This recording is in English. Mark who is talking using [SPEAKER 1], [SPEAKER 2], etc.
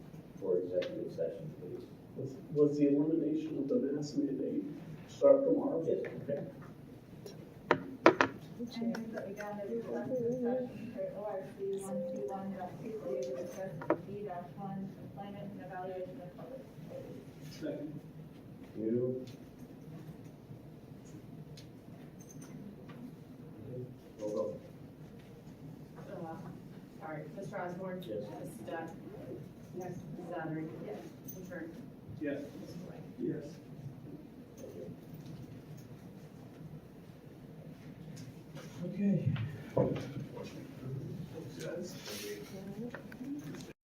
[SPEAKER 1] executive session, please.
[SPEAKER 2] Was- Was the elimination of the mask mandate start tomorrow?
[SPEAKER 1] Yes.
[SPEAKER 2] Okay.
[SPEAKER 3] And then we got a collective session for ORC one two one dot two, we discussed B dash one, employment and evaluation of public employees.
[SPEAKER 2] Second.
[SPEAKER 1] You. Roll call.
[SPEAKER 4] Uh, Sorry, Mr. Osborne? uh,
[SPEAKER 1] Yes.
[SPEAKER 4] Mrs. Dunn? Yes. Mrs. Zachary? Yes. Mr.
[SPEAKER 2] Yes.
[SPEAKER 4] Mrs. White?
[SPEAKER 2] Yes.